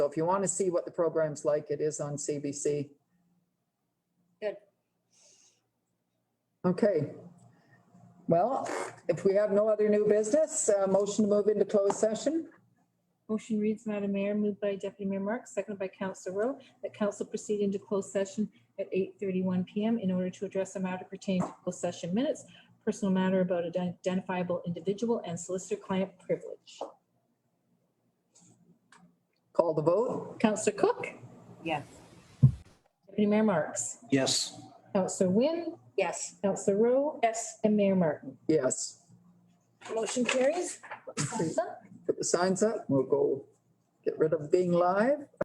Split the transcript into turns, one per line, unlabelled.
So if you want to see what the program's like, it is on CBC.
Good.
Okay. Well, if we have no other new business, uh, motion to move into closed session.
Motion reads, Madam Mayor, moved by Deputy Mayor Marks, seconded by Council Rowe, that council proceed into closed session at eight thirty-one PM in order to address a matter pertaining to closed session minutes, personal matter about an identifiable individual and solicitor client privilege.
Call the vote.
Councillor Cook?
Yes.
Deputy Mayor Marks?
Yes.
Councillor Wynn?
Yes.
Councillor Rowe?
Yes.
And Mayor Martin?
Yes.
Motion carries.
Put the signs up. We'll go get rid of being live.